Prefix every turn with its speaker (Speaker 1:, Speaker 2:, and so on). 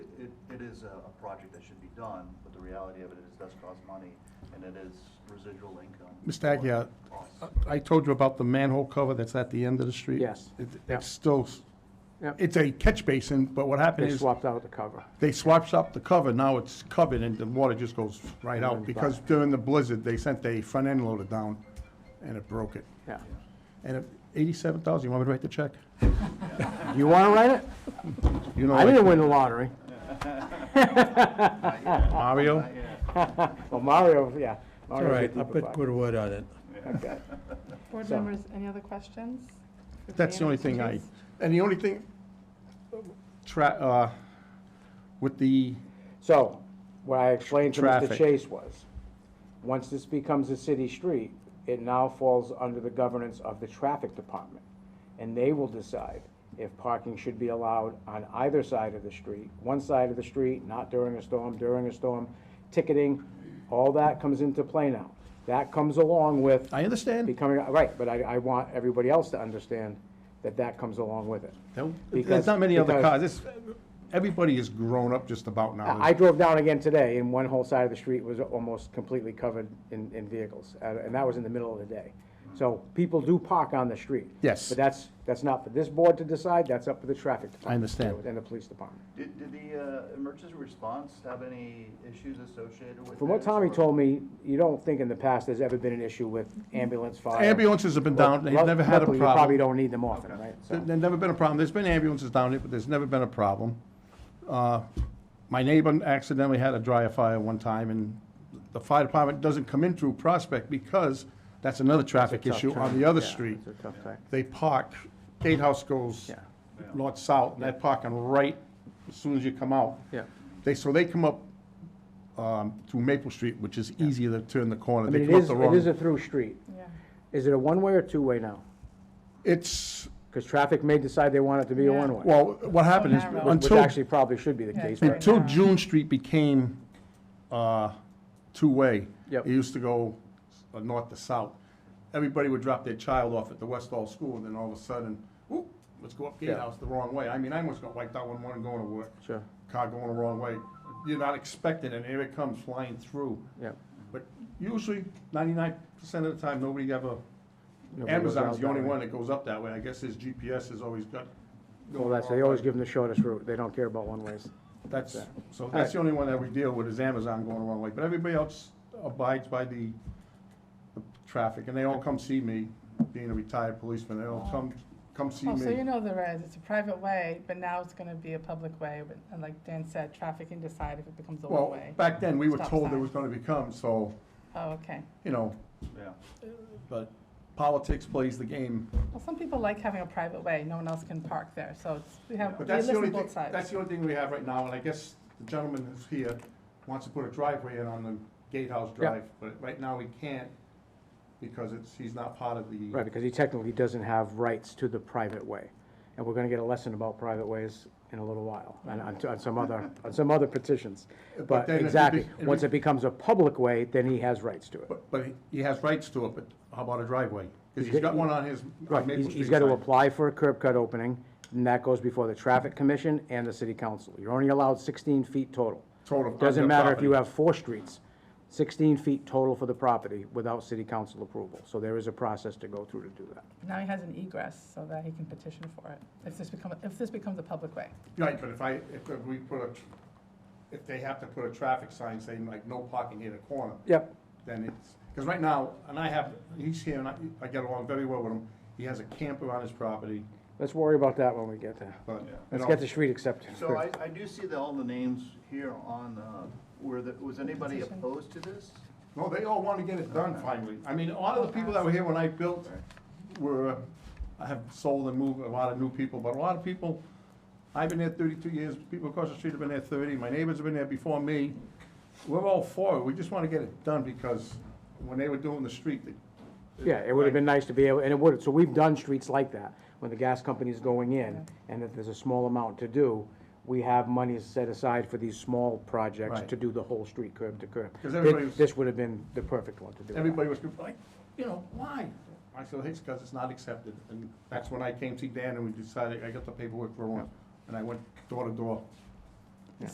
Speaker 1: is a, a project that should be done, but the reality of it is it does cost money, and it is residual income.
Speaker 2: Mr. Agia,
Speaker 1: Costs.
Speaker 2: I told you about the manhole cover that's at the end of the street.
Speaker 3: Yes.
Speaker 2: It-
Speaker 3: Yeah.
Speaker 2: It's still,
Speaker 3: Yep.
Speaker 2: it's a catch basin, but what happened
Speaker 3: They
Speaker 2: is,
Speaker 3: swapped out the cover.
Speaker 2: they swapped up the cover, now it's covered, and the water just goes right out,
Speaker 3: Runs
Speaker 2: because during the blizzard, they sent a front end loader down, and it broke it.
Speaker 3: Yeah.
Speaker 2: And eighty-seven thousand, you want me to write the check?
Speaker 3: You want to write it?
Speaker 2: You know,
Speaker 3: I didn't
Speaker 2: like
Speaker 3: win the lottery.
Speaker 2: Mario?
Speaker 3: Well, Mario, yeah.
Speaker 4: All right, I'll put, put a word on it.
Speaker 5: Board
Speaker 3: So-
Speaker 5: members, any other questions? for
Speaker 2: That's the
Speaker 5: Brianna?
Speaker 2: only thing I,
Speaker 5: Yes.
Speaker 2: and the only thing, tra, uh, with the,
Speaker 3: So, what I explained to Mr.
Speaker 2: Traffic.
Speaker 3: Chase was, once this becomes a city street, it now falls under the governance of the traffic department. And they will decide if parking should be allowed on either side of the street, one side of the street, not during a storm, during a storm, ticketing, all that comes into play now. That comes along with
Speaker 2: I understand,
Speaker 3: becoming, right, but I, I want everybody else to understand that that comes along with it.
Speaker 2: There- there's
Speaker 3: Because-
Speaker 2: not many other
Speaker 3: because-
Speaker 2: cars, this, everybody is grown up just about now.
Speaker 3: I I drove down again today, and one whole side of the street was almost completely covered in, in vehicles, and and that was in the middle of the day. So people do park on the street.
Speaker 2: Yes.
Speaker 3: But that's, that's not for this board to decide, that's up to the traffic department.
Speaker 2: I understand.
Speaker 3: And the police department.
Speaker 1: Did, did the, uh, emergency response have any issues associated with
Speaker 3: From what
Speaker 1: this,
Speaker 3: Tommy
Speaker 1: or-
Speaker 3: told me, you don't think in the past there's ever been an issue with ambulance, fire?
Speaker 2: Ambulances have been down, they've
Speaker 3: Well,
Speaker 2: never had a
Speaker 3: luckily, You probably
Speaker 2: problem.
Speaker 3: don't need them often, right? So-
Speaker 2: There's never been a problem, there's been ambulances down here, but there's never been a problem. Uh, My neighbor accidentally had a dryer fire one time, and the fire department doesn't come in through Prospect because that's another traffic issue on the other
Speaker 3: Yeah,
Speaker 2: street.
Speaker 3: It's a tough thing.
Speaker 2: they park, gatehouse goes
Speaker 3: Yeah.
Speaker 2: north-south, and they're parking right as soon as you come out.
Speaker 3: Yeah.
Speaker 2: They, so they come up um, through Maple Street, which is easier to turn the corner.
Speaker 3: I
Speaker 2: They
Speaker 3: mean, it
Speaker 2: come up
Speaker 3: is,
Speaker 2: the
Speaker 3: it is a
Speaker 2: wrong.
Speaker 3: through street.
Speaker 5: Yeah.
Speaker 3: Is it a one-way or two-way now?
Speaker 2: It's,
Speaker 3: Because traffic may decide they want it to be a
Speaker 5: Yeah.
Speaker 3: one-way.
Speaker 2: well, what happened is,
Speaker 5: narrow.
Speaker 3: Which
Speaker 2: until,
Speaker 3: actually probably should be the
Speaker 5: Yeah,
Speaker 3: case.
Speaker 5: it's very
Speaker 3: but-
Speaker 2: until
Speaker 5: narrow.
Speaker 2: June Street became uh, two-way.
Speaker 3: Yep.
Speaker 2: It used to go uh, north to south. Everybody would drop their child off at the West Hall School, and then all of a sudden, whoop, let's go up
Speaker 3: Yeah.
Speaker 2: gatehouse the wrong way. I mean, I almost got wiped out one morning going to work.
Speaker 3: Sure,
Speaker 2: car going the wrong way, you're not expecting it, and here it comes flying through.
Speaker 3: yeah.
Speaker 2: But usually, ninety-nine percent of the time, nobody ever,
Speaker 3: Nobody
Speaker 2: Amazon's
Speaker 3: goes out
Speaker 2: the
Speaker 3: that
Speaker 2: only
Speaker 3: way.
Speaker 2: one that goes up that way, I guess his GPS has always got.
Speaker 3: Well, that's, they always give them the shortest route. They don't care about one ways.
Speaker 2: That's,
Speaker 3: that.
Speaker 2: so that's the only one that we deal with, is Amazon going the wrong way, but everybody else abides by the, the traffic, and they all come see me, being a retired policeman, they all come, come see
Speaker 5: Oh, so you
Speaker 2: me.
Speaker 5: know there is, it's a private way, but now it's gonna be a public way, but, and like Dan said, traffic can decide if it becomes a
Speaker 2: Well,
Speaker 5: one-way.
Speaker 2: back then, we were
Speaker 5: Stop
Speaker 2: told it
Speaker 5: sign.
Speaker 2: was gonna become, so,
Speaker 5: Oh, okay.
Speaker 2: you know,
Speaker 1: Yeah.
Speaker 2: but politics plays the game,
Speaker 5: Well, some people like having a private way, no one else can park there, so it's, we have, we
Speaker 2: But that's the
Speaker 5: listen
Speaker 2: only
Speaker 5: to
Speaker 2: thing,
Speaker 5: both sides.
Speaker 2: that's the only thing we have right now, and I guess the gentleman who's here wants to put a driveway in on the Gatehouse Drive, but right now we can't because it's, he's not part of the.
Speaker 3: Right, because he technically doesn't have rights to the private way. And we're gonna get a lesson about private ways in a little while, and on, on some other, on some other petitions.
Speaker 2: But
Speaker 3: But
Speaker 2: then if it
Speaker 3: exactly,
Speaker 2: be-
Speaker 3: once it becomes a public way, then he has rights to it.
Speaker 2: But, but he- he has rights to it, but how about a driveway? Because he's got one on his on
Speaker 3: Right,
Speaker 2: Maple
Speaker 3: he's,
Speaker 2: Street.
Speaker 3: he's gotta
Speaker 2: side.
Speaker 3: apply for a curb cut opening, and that goes before the traffic commission and the city council. You're only allowed sixteen feet total.
Speaker 2: Total of
Speaker 3: Doesn't
Speaker 2: the
Speaker 3: matter if you
Speaker 2: property.
Speaker 3: have four streets, sixteen feet total for the property without city council approval. So there is a process to go through to do that.
Speaker 5: Now he has an egress, so that he can petition for it, if this become, if this becomes a public way.
Speaker 2: Right, but if I, if we put a, tr- if they have to put a traffic sign saying like no parking near the corner,
Speaker 3: Yep,
Speaker 2: then it's, because right now, and I have, he's here and I, I get along very well with him. He has a camper on his property,
Speaker 3: let's worry about that when we get there.
Speaker 2: but.
Speaker 1: Yeah.
Speaker 2: you
Speaker 3: Let's
Speaker 2: know,
Speaker 3: get the street accepted.
Speaker 1: So I, I do see that all the names here on, uh, were the, was anybody
Speaker 5: Petition.
Speaker 1: opposed to this?
Speaker 2: No, they all want to get it done finally. I mean, a lot of the people that were here when I built were, uh, I have sold and moved a lot of new people, but a lot of people, I've been there thirty-two years, people across the street have been there thirty, my neighbors have been there before me. We're all for it, we just want to get it done because when they were doing the street, they.
Speaker 3: Yeah, it would have been nice to be able, and it would, so we've done streets like that, when the gas company's going in, and if there's a small amount to do, we have money set aside for these small projects
Speaker 2: Right.
Speaker 3: to do the whole street curb to curb.
Speaker 2: 'Cause everybody
Speaker 3: Thi-
Speaker 2: was-
Speaker 3: This would have been the perfect one to do. that.
Speaker 2: Everybody was like, you know, why? I said, it's because it's not accepted, and that's when I came to Dan and we decided, I got the paperwork for one, and I went door to door.